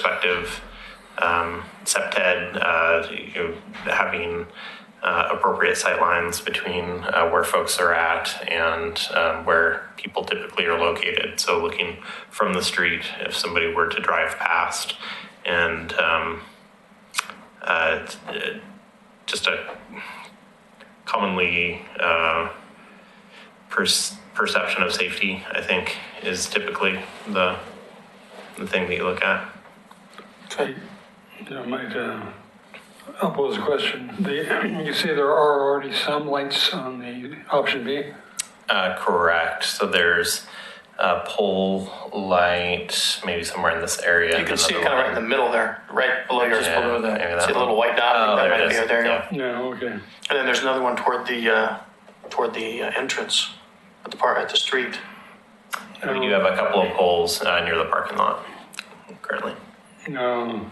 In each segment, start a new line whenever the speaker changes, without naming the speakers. perspective, um, SEPTED, uh, you know, having uh, appropriate sightlines between uh, where folks are at and um, where people typically are located. So looking from the street, if somebody were to drive past, and um, uh, t- uh, just a commonly uh, pers- perception of safety, I think, is typically the the thing that you look at.
I you know, might uh, I'll pose a question. The, you say there are already some lights on the option B.
Uh, correct. So there's a pole light, maybe somewhere in this area.
You can see it kind of right in the middle there, right below yours,
Yeah,
below
maybe
the,
that
see the little
one.
white dot? I
Oh, there it
think that might be
is.
it, there you go.
Yeah.
No, okay.
And then there's another one toward the, uh, toward the uh, entrance at the part, at the street.
We
Um,
do have a couple of poles uh, near the parking lot currently.
No.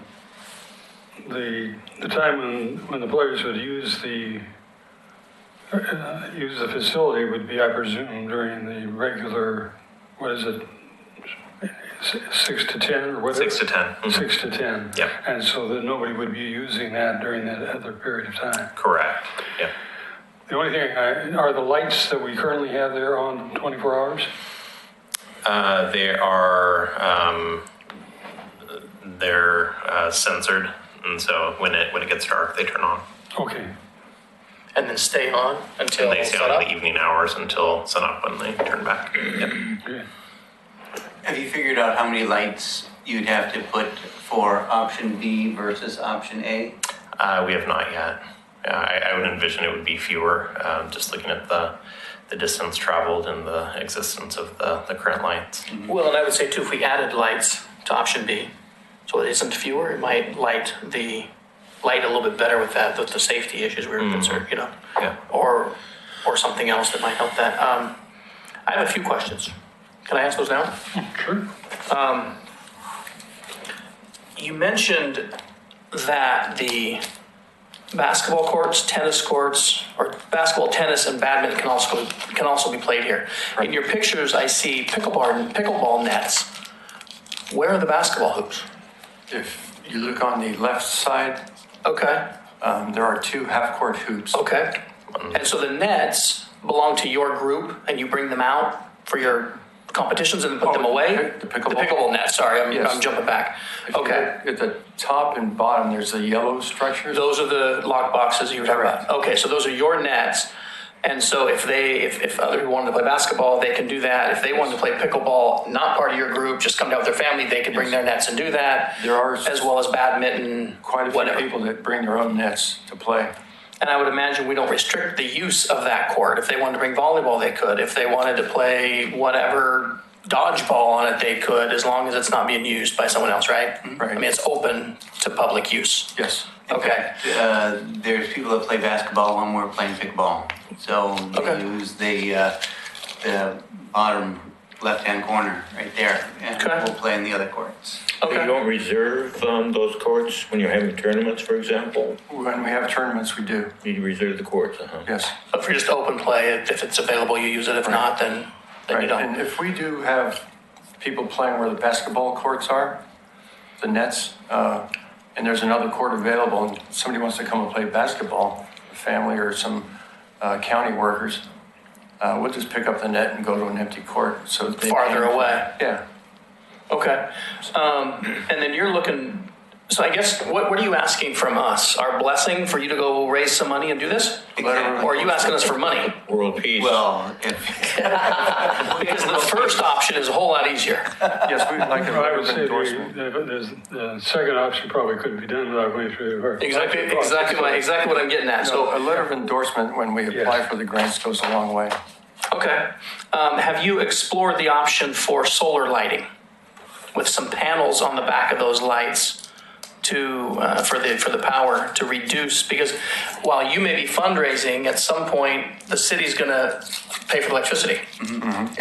The the time when when the players would use the uh, use the facility would be, I presume, during the regular. What is it? s- Six to ten or whatever.
Six to 10 Mhm.
Six to ten.
Yep.
And so that nobody would be using that during that other period of time.
Correct. Yeah.
The only thing, I- are the lights that we currently have there on 24 hours?
Uh, they are um, they're uh, censored, and so when it when it gets dark, they turn on.
Okay,
And then stay on until
They stay
set
on
up.
in the evening hours until sunup when they turn back. Yep.
okay.
Have you figured out how many lights you'd have to put for option B versus option A?
Uh, we have not yet. Yeah, I, I would envision it would be fewer, um, just looking at the the distance traveled and the existence of the, the current lights.
Well, and I would say too, if we added lights to option B, so it isn't fewer, it might light the, light a little bit better with that, with the safety issues we were concerned, you know?
Mm. Yeah.
Or, or something else that might help that. Um, I have a few questions. Can I ask those now?
Sure.
You mentioned that the basketball courts, tennis courts, or basketball, tennis, and badminton can also can also be played here. In your pictures, I see pickleball pickleball nets. Where are the basketball hoops?
If you look on the left side,
Okay,
um, there are two half-court hoops.
okay. And so the nets belong to your group, and you bring them out for your competitions and put them
Oh,
away.
the pick- the pickleball?
nets. Sorry, I'm,
Yes.
I'm jumping back.
If you
Okay.
look At the top and bottom, there's the yellow structures.
Those are the lock boxes you were talking about.
Correct.
Okay, so those are your nets. And so if they, if, if other people wanted to play basketball, they can do that. If they wanted to play pickleball, not part of your group, just come down with their family, they could bring their nets and do that.
There are
As well as badminton,
Quite a
whatever.
few people that bring their own nets to play.
And I would imagine we don't restrict the use of that court. If they wanted to bring volleyball, they could. If they wanted to play whatever dodgeball on it, they could, as long as it's not being used by someone else, right?
Right.
I mean, it's open to public use.
Yes.
Okay.
Uh, there's people that play basketball when we're playing pickleball. So they
Okay.
use the, uh, the bottom left-hand corner right there. And
Okay.
we'll play in the other courts.
So
Okay.
You don't reserve um, those courts when you're having tournaments, for example?
When we have tournaments, we do.
You reserve the courts, uh-huh.
Yes.
But for just open play, if if it's available, you use it. If not, then, then you
Right. And
don't.
if we do have people playing where the basketball courts are, the nets, uh, and there's another court available, and somebody wants to come and play basketball, a family or some uh, county workers, uh, we'll just pick up the net and go to an empty court. So they
Farther
can-
away.
Yeah.
Okay. Um, and then you're looking, so I guess, what, what are you asking from us? Our blessing for you to go raise some money and do this?
Exactly.
Or are you asking us for money?
World peace.
Well, if,
Because the first option is a whole lot easier.
Yes, we'd like
Well, I would
an
say the-
endorsement.
the there's- the second option probably couldn't be done without going through the hard.
Exactly, exactly, my, exactly what I'm getting at.
So a
So,
letter of endorsement when we apply
Yes.
for the grants goes a long way.
okay. Um, have you explored the option for solar lighting with some panels on the back of those lights to uh, for the for the power to reduce? Because while you may be fundraising, at some point the city's going to pay for electricity,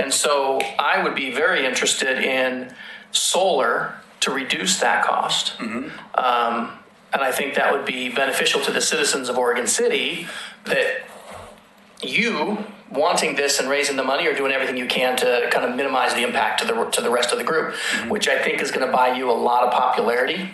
and so I would be very interested in solar to reduce that cost. Um, and I think that would be beneficial to the citizens of Oregon City that you wanting this and raising the money or doing everything you can to kind of minimize the impact to the, to the rest of the group, which I think is going to buy you a lot of popularity